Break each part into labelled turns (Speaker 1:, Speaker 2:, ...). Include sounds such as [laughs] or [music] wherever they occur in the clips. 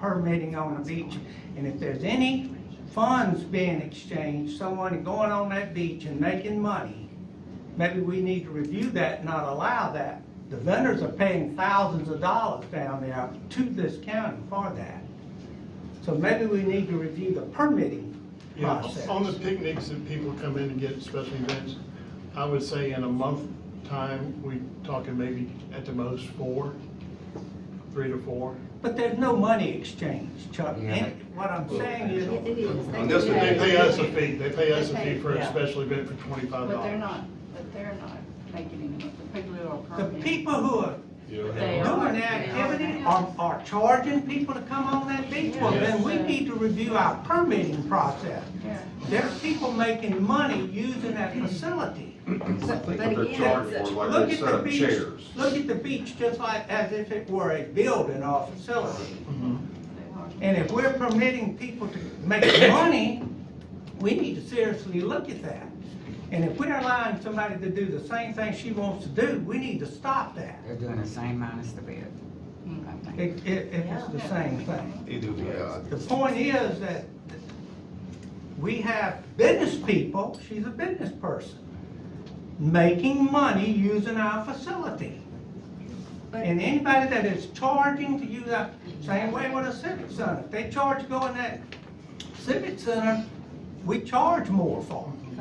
Speaker 1: permitting on the beach. And if there's any funds being exchanged, someone going on that beach and making money, maybe we need to review that, and not allow that. The vendors are paying thousands of dollars down there to this county for that. So maybe we need to review the permitting
Speaker 2: Yeah,
Speaker 1: process.
Speaker 2: on the picnics that people come in and get special events, I would say in a month time, we talking maybe at the most four, three to four.
Speaker 1: But there's no money exchange, Chuck.
Speaker 3: Yeah.
Speaker 1: And what I'm saying is,
Speaker 4: Yes, it is. They
Speaker 3: And this
Speaker 4: do
Speaker 3: would
Speaker 2: They
Speaker 4: that.
Speaker 2: pay us a fee, they pay us a
Speaker 4: They
Speaker 2: fee for a
Speaker 5: Yeah.
Speaker 2: special event for twenty-five dollars.
Speaker 4: But they're not, but they're not making any, money. the people who are
Speaker 1: the
Speaker 4: permitting.
Speaker 1: people who are
Speaker 4: They are.
Speaker 1: doing the activity are, are charging people to come on that beach, well, then we
Speaker 4: Yes.
Speaker 1: need to review our permitting process.
Speaker 4: Yeah.
Speaker 1: There's people making money using that facility.
Speaker 3: I think what
Speaker 4: But
Speaker 3: they're
Speaker 4: again,
Speaker 3: charged for, like
Speaker 1: Look
Speaker 3: they
Speaker 1: at
Speaker 3: set
Speaker 1: the
Speaker 3: up
Speaker 1: beach.
Speaker 3: chairs.
Speaker 1: Look at the beach just like, as if it were a building or a facility.
Speaker 2: Mm-hmm.
Speaker 1: And if we're permitting people to make [coughs] money, we need to seriously look at that. And if we're allowing somebody to do the same thing she wants to do, we need to stop that.
Speaker 6: They're doing the same minus the bid. I think.
Speaker 1: It, it, if it's the same thing.
Speaker 3: Yeah.
Speaker 1: The point is that we have business people, she's a business person, making money using our facility.
Speaker 4: But-
Speaker 1: And anybody that is charging to use our, same way with a civic center, if they charge to go in that civic center, we charge more for it.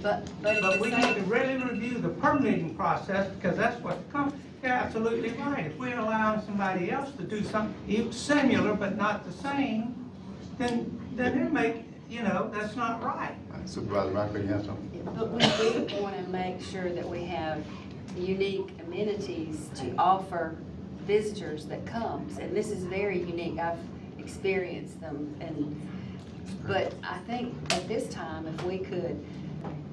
Speaker 4: But, but at
Speaker 1: But we
Speaker 4: the
Speaker 1: need to
Speaker 4: same,
Speaker 1: really review the permitting process, because that's what comes, you're absolutely right. If we're allowing somebody else to do something similar but not the same, then, then they're making, you know, that's not right.
Speaker 3: Supervisor Rockley, you have something?
Speaker 7: But we do want to make sure that we have unique amenities to offer visitors that comes. And this is very unique. I've experienced them and, but I think at this time, if we could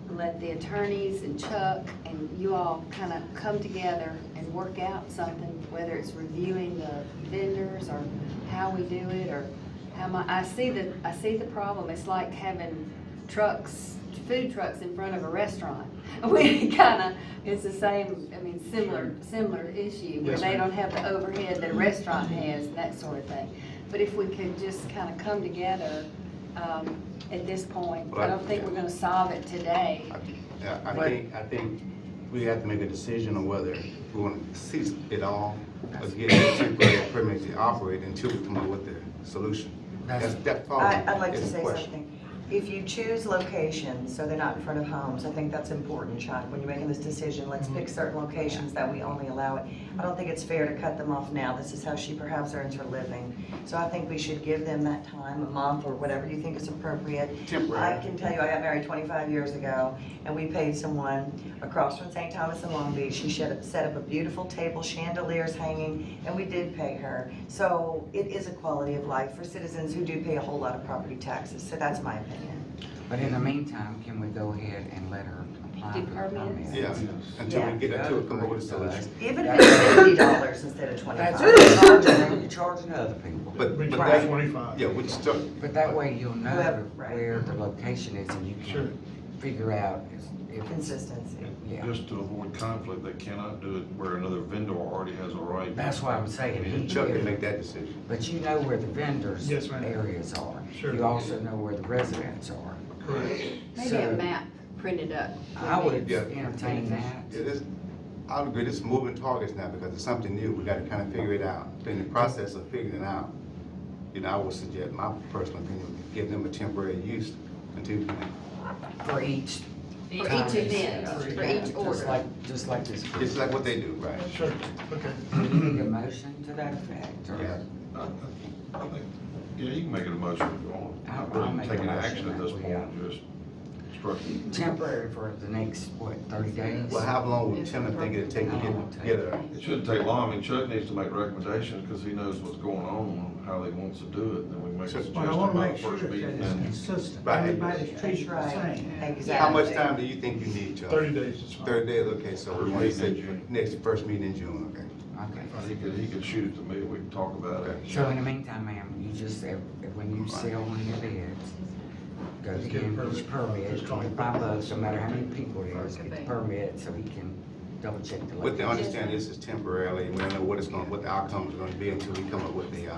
Speaker 7: let the attorneys and Chuck and you all kind of come together and work out something, whether it's reviewing the vendors or how we do it or how my, I see the, I see the problem. It's like having trucks, food trucks in front of a restaurant. [laughs] We kind of, it's the same, I mean, similar, similar issue where
Speaker 2: Yes,
Speaker 7: they
Speaker 2: ma'am.
Speaker 7: don't have the overhead that a restaurant has and that sort of thing. But if we could just kind of come together, um, at this point, I don't think we're gonna solve it today.
Speaker 3: Yeah, I think, I think we have to make a decision on whether we want to cease it all or get a temporary permit to operate until we come up with a solution. That's, that follows.
Speaker 5: I, I'd like to
Speaker 3: is the
Speaker 5: say
Speaker 3: question.
Speaker 5: something. If you choose locations, so they're not in front of homes, I think that's important, Chuck, when you're making this decision, let's pick certain locations that we only allow it. I don't think it's fair to cut them off now, this is how she perhaps earns her living. So I think we should give them that time, a month or whatever you think is appropriate.
Speaker 3: Temporary.
Speaker 5: I can tell you, I got married twenty-five years ago, and we paid someone across from St. Thomas in Long Beach, she shed- set up a beautiful table, chandeliers hanging, and we did pay her. So it is a quality of life for citizens who do pay a whole lot of property taxes, so that's my opinion.
Speaker 6: But in the meantime, can we go ahead and let her apply for
Speaker 7: Do
Speaker 6: the
Speaker 7: permits?
Speaker 6: permit?
Speaker 3: Yeah, until we get, until we come up with a solution.
Speaker 5: Even if it's fifty dollars instead of
Speaker 6: That's
Speaker 5: twenty-five.
Speaker 6: what you're charging, you're charging other people.
Speaker 3: But,
Speaker 2: We
Speaker 3: but
Speaker 2: try
Speaker 3: that,
Speaker 2: twenty-five.
Speaker 3: yeah, we still.
Speaker 6: But that way you'll know
Speaker 5: Right.
Speaker 6: where the location is and you
Speaker 2: Sure.
Speaker 6: can figure out if, if-
Speaker 5: Consistency.
Speaker 6: yeah.
Speaker 8: Just to avoid conflict, they cannot do it where another vendor already has a right.
Speaker 6: That's why I'm saying. he-
Speaker 3: Chuck can make that decision.
Speaker 6: But you know where the vendors'
Speaker 2: Yes, ma'am.
Speaker 6: areas are.
Speaker 2: Sure.
Speaker 6: You also know where the residents are.
Speaker 2: Correct.
Speaker 7: Maybe
Speaker 6: So,
Speaker 7: a map printed up.
Speaker 6: I would
Speaker 3: Yeah.
Speaker 6: entertain that.
Speaker 3: Yeah, this, I would agree, this is moving targets now because it's something new, we gotta kinda figure it out. In the process of figuring it out, you know, I would suggest, my personal opinion, would give them a temporary use until,
Speaker 6: For each.
Speaker 7: For each
Speaker 6: time they
Speaker 7: event,
Speaker 6: set up.
Speaker 7: for each
Speaker 6: Just
Speaker 7: order.
Speaker 6: like- Just like this.
Speaker 3: it's like what they do, right?
Speaker 2: Sure, okay.
Speaker 6: Do you need a motion to that effect,
Speaker 3: Yeah.
Speaker 6: or?
Speaker 8: I- I- I think- Yeah, you can make it a motion if you want.
Speaker 6: I'll- I'll
Speaker 8: We're
Speaker 6: make a
Speaker 8: taking
Speaker 6: motion
Speaker 8: action at
Speaker 6: that
Speaker 8: this
Speaker 6: we, uh,
Speaker 8: point, just instructing.
Speaker 6: Temporary for the next, what, thirty days?
Speaker 3: Well, how long would Tim think it'd take to get, get a,
Speaker 8: It shouldn't take long. I mean, Chuck needs to make recommendations because he knows what's going on, how he wants to do it, then we make a
Speaker 3: Sure.
Speaker 8: suggestion
Speaker 1: But I want to
Speaker 8: by the
Speaker 1: make sure
Speaker 8: first
Speaker 1: that
Speaker 8: meeting.
Speaker 1: it's
Speaker 8: and-
Speaker 1: consistent,
Speaker 3: Right.
Speaker 1: everybody's
Speaker 5: That's
Speaker 1: treated the
Speaker 5: right,
Speaker 1: same.
Speaker 5: exactly.
Speaker 3: how much time do you think you need, Chuck?
Speaker 2: Thirty days is fine.
Speaker 3: Thirty days, okay, so we
Speaker 8: First
Speaker 3: wanna
Speaker 8: meeting in
Speaker 3: say
Speaker 8: June.
Speaker 3: next, first meeting in June, okay?
Speaker 6: Okay.
Speaker 8: uh, He could, he could shoot it to me, we can talk about it.
Speaker 6: So in the meantime, ma'am, you just, if- if- when you sell one of your bids, go
Speaker 2: Just get a
Speaker 6: get his
Speaker 2: permit.
Speaker 6: permit,
Speaker 2: Just call it.
Speaker 6: twenty-five bucks, no matter how many people it is,
Speaker 4: Okay.
Speaker 6: get the permit so he can double check the
Speaker 3: With the
Speaker 6: location.
Speaker 3: understanding this is temporarily, we don't know what it's gonna, what the outcome's gonna be until we come up with the, uh,